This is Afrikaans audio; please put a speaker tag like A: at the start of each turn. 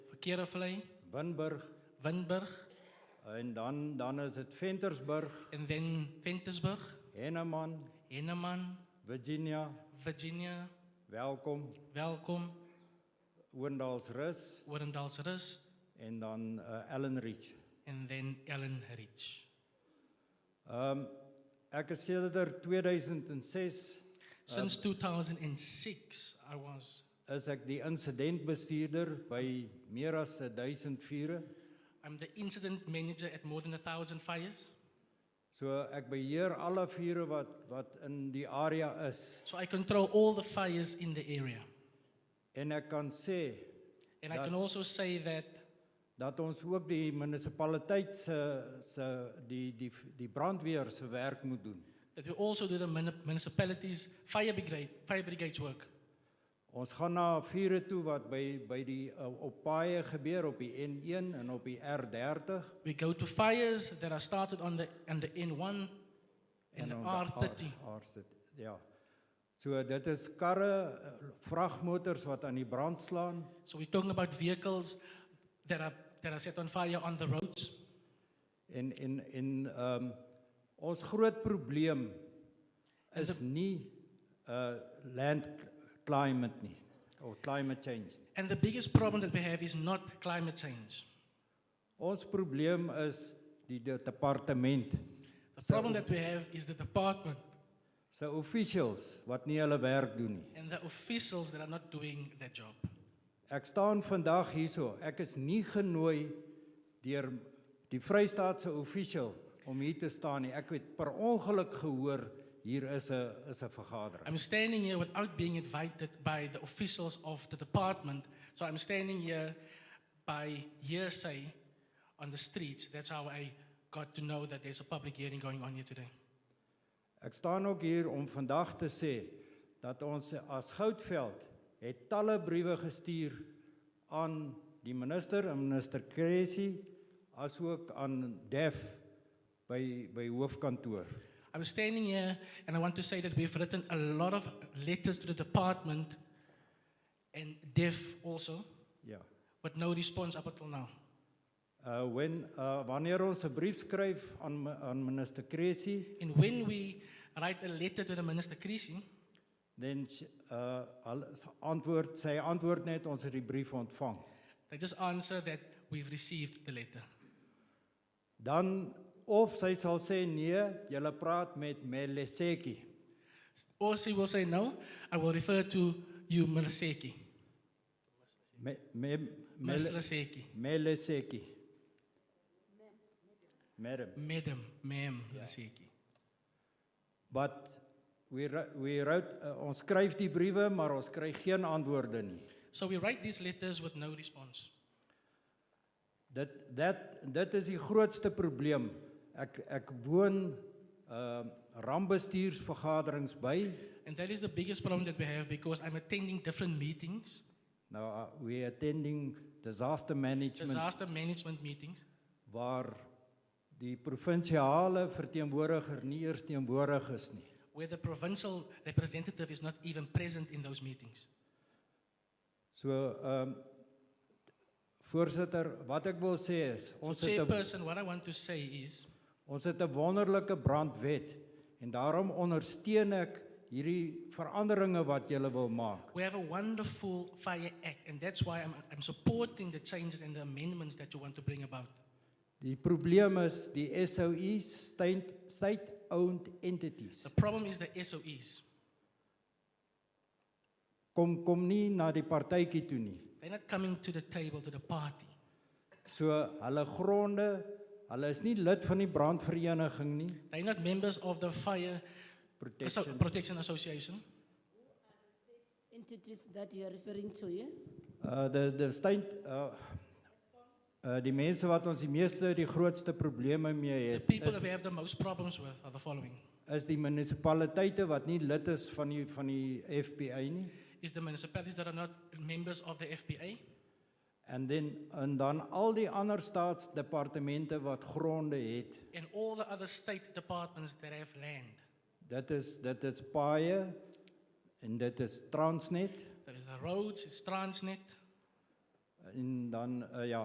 A: Kerevlei,
B: Winburg
A: Winburg,
B: en dan dan is dit Ventersburg,
A: and then Ventersburg,
B: Henneman,
A: Henneman,
B: Virginia,
A: Virginia,
B: Welkom,
A: Welkom,
B: Oendalsrus
A: Orendalsrus,
B: en dan uh, Ellenreach.
A: and then Ellen Ridge.
B: Ehm um, ek is sedert er 2006
A: Since 2006, I was
B: is ek die insidentbestuurder by meer as 1000 vure.
A: I'm the incident manager at more than a thousand fires,
B: So ek beheer alle vure wat wat in die area is
A: so I control all the fires in the area.
B: en ek kan sê
A: And
B: That-
A: I can also say that
B: dat ons ook die munisipaliteit se se die die die brandweer se werk moet doen.
A: that we also do the muni- municipalities fire brigade fire brigades work.
B: Ons gaan na vure toe wat by by die uh, op paaie gebeur op die N1 en op die R30
A: We go to fires that are started on the on the N1 and the
B: op
A: R30.
B: die R- R30. Ja. So dit is karre, eh, vragmotors wat aan die brand slaan
A: So we're talking about vehicles that are that are set on fire on the roads.
B: en en en ehm um, ons groot probleem is nie uh land climate nie of climate change nie.
A: And the biggest problem that we have is not climate change.
B: Ons probleem is die, die departement
A: The problem that we have is the department
B: se officials wat nie hulle werk doen nie.
A: and the officials that are not doing their job.
B: Ek staan vandag hierso. Ek is nie genooi deur die Vrystaatse official om hier te staan nie. Ek het per ongeluk gehoor hier is 'n is 'n vergadering.
A: I'm standing here without being invited by the officials of the department. So I'm standing here by hearsay on the streets. That's how I got to know that there's a public hearing going on here today.
B: Ek staan ook hier om vandag te sê dat ons as Goudveld het talle briewe gestuur aan die minister, aan minister Cressy, asook aan Def by by hoofkantoor.
A: I'm standing here and I want to say that we've written a lot of letters to the department and DEF also,
B: Ja.
A: but no response up until now.
B: Uh when uh wanneer ons 'n brief skryf aan mi- aan minister Cressy
A: And when we write a letter to the Minister Creasy,
B: Dan s- uh al- s- antwoord sy antwoord net ons het die brief ontvang.
A: they just answer that we've received the letter.
B: Dan of sy sal sê nee, jy praat met Meleseki.
A: Or she will say, No, I will refer to you, Meliseki.
B: Me, me, Mele-
A: Meliseki.
B: Meleseki. Madam.
A: Madam, ma'am, Meliseki.
B: But we wri- we wrote uh, ons skryf die briewe, maar ons kry geen antwoorde nie.
A: So we write these letters with no response.
B: Dit dat dit is die grootste probleem. Ek ek woon ehm uh, rampbestuursvergaderings by
A: And that is the biggest problem that we have because I'm attending different meetings,
B: Nou uh, we attending disaster management
A: disaster management meetings,
B: waar die provinsiale verteenwoordiger nie eers teenwoordig is nie.
A: where the provincial representative is not even present in those meetings.
B: So ehm um, voorsitter, wat ek wil sê is
A: So,
B: ons het 'n
A: chairperson, what I want to say is
B: ons het 'n wonderlike brandwet en daarom ondersteun ek hierdie veranderinge wat jy wil maak.
A: we have a wonderful fire act, and that's why I'm, I'm supporting the changes and the amendments that you want to bring about.
B: Die probleem is die SOE state state owned entities
A: The problem is the SOEs.
B: kom kom nie na die partytjie toe nie.
A: They're not coming to the table, to the party.
B: So hulle gronde, hulle is nie lid van die brandvereniging nie.
A: They're not members of the Fire Asso-
B: Protection.
A: Protection Association.
C: entities that you are referring to, yeah?
B: Uh die die stein uh uh die mense wat ons die meeste die grootste probleme mee
A: The
B: het
A: people that
B: is
A: we have the most problems with are the following.
B: is die munisipaliteite wat nie lid is van die van die FPA nie.
A: Is the municipalities that are not members of the FPA,
B: En dan en dan al die ander staatsdepartemente wat gronde het.
A: and all the other state departments that have land.
B: Dit is dit is paaie en dit is Transnet
A: There is the roads, it's Transnet,
B: en dan uh, ja,